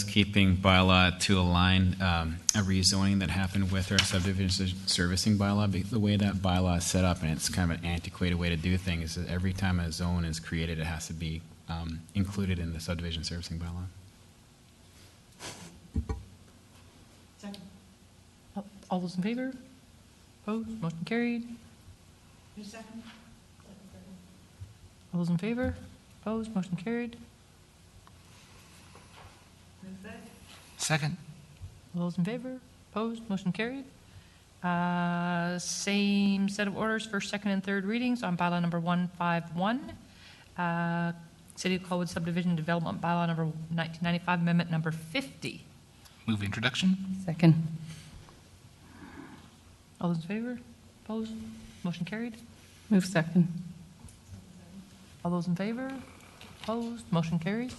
housekeeping bylaw to align um, a rezoning that happened with our subdivision ser- servicing bylaw. Be- The way that bylaw is set up, and it's kind of an antiquated way to do things, is every time a zone is created, it has to be um, included in the subdivision servicing bylaw. Second. All those in favor? Opposed? Motion carried. Who's second? All those in favor? Opposed? Motion carried. Who's that? Second. All those in favor? Opposed? Motion carried. Uh, Same set of orders for second and third readings on bylaw number 151, uh, City of Colwood Subdivision Development Bylaw number 1995, Amendment number 50. Move introduction. Second. All those in favor? Opposed? Motion carried. Move second. All those in favor? Opposed? Motion carried.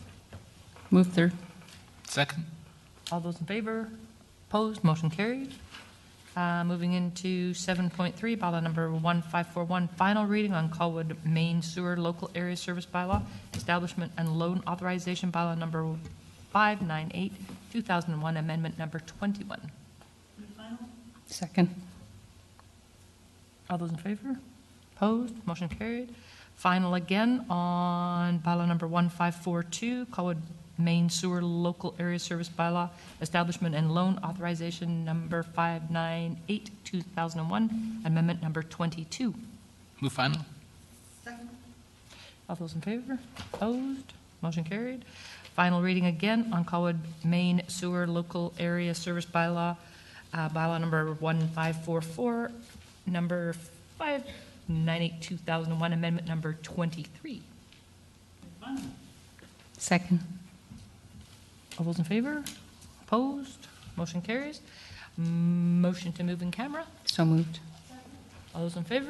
Move third. Second. All those in favor? Opposed? Motion carried. Uh, Moving into 7.3, bylaw number 1541, final reading on Colwood Main Sewer Local Area Service Bylaw, Establishment and Loan Authorization Bylaw number 598, 2001, Amendment number 21. Second. All those in favor? Opposed? Motion carried. Final again on bylaw number 1542, Colwood Main Sewer Local Area Service Bylaw, Establishment and Loan Authorization Number 598, 2001, Amendment Number 22. Move final. Second. All those in favor? Opposed? Motion carried. Final reading again on Colwood Main Sewer Local Area Service Bylaw, uh, bylaw number 1544, number 598, 2001, amendment number 23. Second. All those in favor? Opposed? Motion carries. Motion to move in camera. So moved. All those in favor?